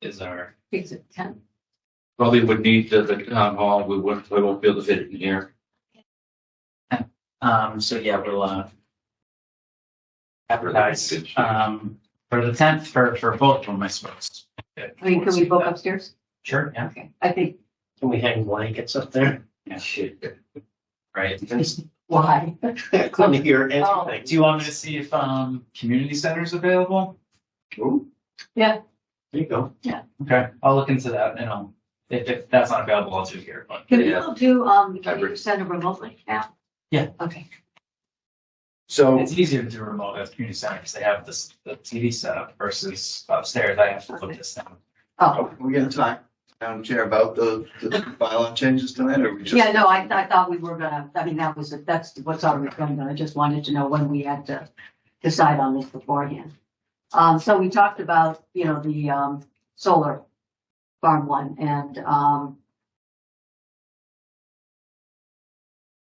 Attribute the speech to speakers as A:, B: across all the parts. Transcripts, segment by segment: A: is our,
B: It's at ten.
A: probably would need the, the town hall, we wouldn't, we won't be able to fit it in here.
C: Um, so yeah, we'll, uh, advertise,
A: Good shoot.
C: um, for the tenth, for, for both of them, I suppose.
B: I mean, can we book upstairs?
C: Sure, yeah.
B: Okay, I think,
D: Can we hang blankets up there?
C: Yeah, shit. Right.
B: why?
D: I couldn't hear
B: Oh.
D: anything.
C: Do you want me to see if, um, community center's available?
D: Ooh.
B: Yeah.
D: There you go.
C: Okay, I'll look into that and I'll, if, if that's not available, I'll do it here, but.
B: Can
A: Yeah.
B: people do, um, can you
A: Hybrid.
B: send it remotely now?
C: Yeah.
B: Okay,
D: So,
C: It's easier to do remote at community center because they have this, the TV setup versus upstairs, I have to put this down.
B: oh,
E: We gonna talk, Madam Chair, about the, the bylaw changes tonight, or we just?
B: yeah, no, I, I thought we were gonna, I mean, that was, that's what's already going on. I just wanted to know when we had to decide on this beforehand. Um, so we talked about, you know, the, um, solar farm one and, um,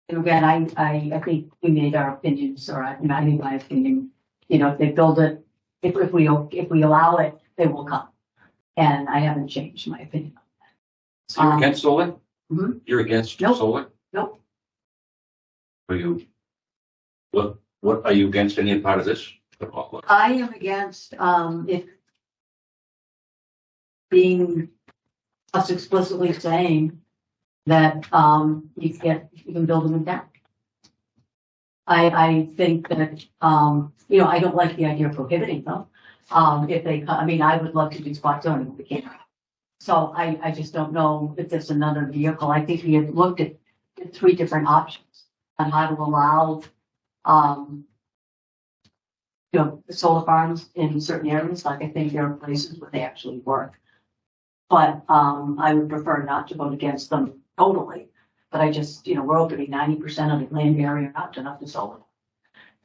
B: and again, I, I, I think we made our opinions, or I, I mean, my opinion, you know, if they build it, if, if we, if we allow it, they will come. And I haven't changed my opinion.
A: So you're
B: Um,
A: against solar?
B: Mhm.
A: You're against
B: Nope.
A: solar?
B: Nope.
A: Are you? What, what, are you against any part of this?
B: I am against, um, it being us explicitly saying that, um, you can, you can build them in town. I, I think that, um, you know, I don't like the idea of prohibiting them. Um, if they, co- I mean, I would love to do spot zoning, but we can't. So I, I just don't know if there's another vehicle. I think we had looked at at three different options on how to allow, um, you know, solar farms in certain areas, like I think there are places where they actually work. But, um, I would prefer not to vote against them totally, but I just, you know, we're opening ninety percent of the land area up to enough to solar.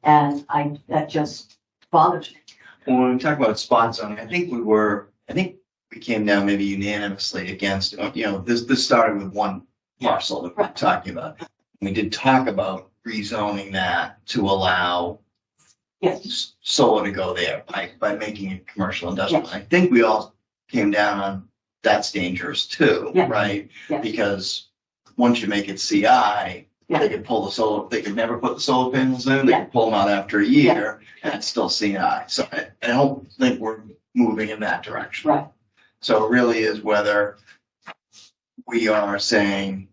B: And I, that just bothers me.
E: When we talk about spot zoning, I think we were, I think we came down maybe unanimously against, uh, you know, this, this started with one parcel that we're talking about. We did talk about rezoning that to allow
B: Yes,
E: s- solar to go there by, by making it commercial industrial. I think we all came down on that's dangerous too,
B: Yeah.
E: right?
B: yes,
E: because once you make it CI,
B: Yeah.
E: they could pull the solar, they could never put the solar panels in, they
B: Yeah.
E: could pull them out after a year, and it's still CI. So I, I don't think we're moving in that direction.
B: right,
E: So it really is whether we are saying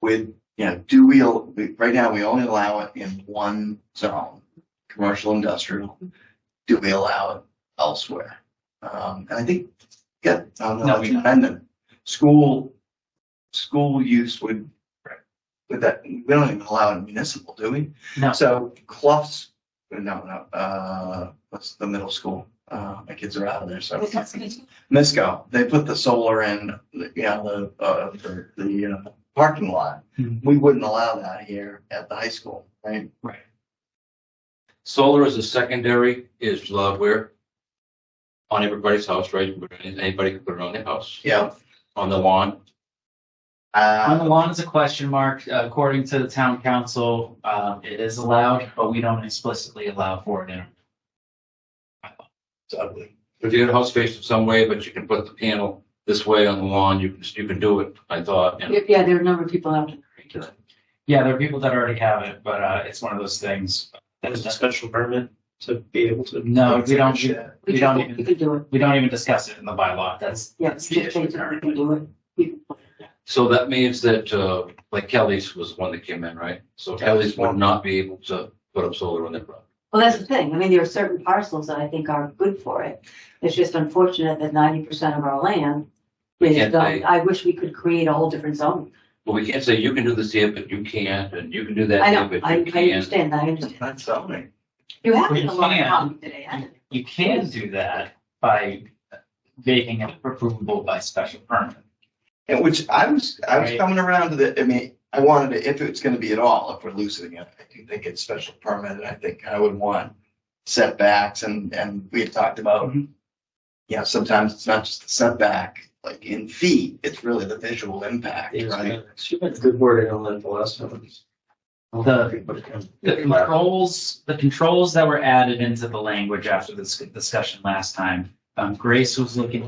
E: with, you know, do we, we- right now, we only allow it in one zone, commercial, industrial. Do we allow it elsewhere? Um, and I think, yeah, I don't
C: No,
E: know,
C: we
E: it's
C: don't.
E: dependent. School, school use would,
C: Right.
E: with that, we don't even allow it in municipal, do we?
C: No.
E: So Clough's, no, no, uh, what's the middle school? Uh, my kids are out of there, so. Misco, they put the solar in, you know, the, uh, the, the uh, parking lot.
C: Mhm.
E: We wouldn't allow that here at the high school, right?
A: Solar as a secondary is uh, where on everybody's house, right? Anybody can put it on their house,
E: Yeah.
A: on the lawn.
C: On the
E: Uh,
C: lawn is a question mark. According to the town council, um, it is allowed, but we don't explicitly allow for it in.
D: It's ugly.
A: If your house faces some way, but you can put the panel this way on the lawn, you can, you can do it, I thought. and-
B: yeah, there are a number of people out there.
C: Yeah, there are people that already have it, but, uh, it's one of those things.
D: That is a special permit to be able to.
C: No, we don't, we
B: We
C: don't
B: can, we
C: even,
B: can do it,
C: we don't even discuss it in the bylaw. That's,
B: yes,
C: that's the
B: just
C: issue
B: basically we
C: currently.
B: can do it. We-
A: So that means that, uh, like Kelly's was the one that came in, right? So Kelly's would not be able to put up solar on their property.
B: Well, that's the thing. I mean, there are certain parcels that I think are good for it. It's just unfortunate that ninety percent of our land
A: We
B: is
A: can't
B: zoned.
A: pay.
B: I wish we could create a whole different zone.
A: But we can't say you can do this here, but you can't, and you can do
B: I
A: that
B: know,
A: here, but
B: I,
A: you
B: I
A: can't.
B: understand that, I understand.
E: that's zoning.
B: You have
C: We
B: a lot of
C: can.
B: problems today, haven't you?
C: You can do that by making it approvable by special permit.
E: Yeah, which I was, I was
C: Right.
E: coming around to the, I mean, I wanted to, if it's gonna be at all, if we're loosening it, I do think it's special permit, and I think I would want setbacks and, and we had talked about,
C: Mhm.
E: you know, sometimes it's not just the setback, like in feet, it's really the visual impact, right?
D: She had good wording on that the last time.
C: The, the controls, the controls that were added into the language after this discussion last time, um, Grace was looking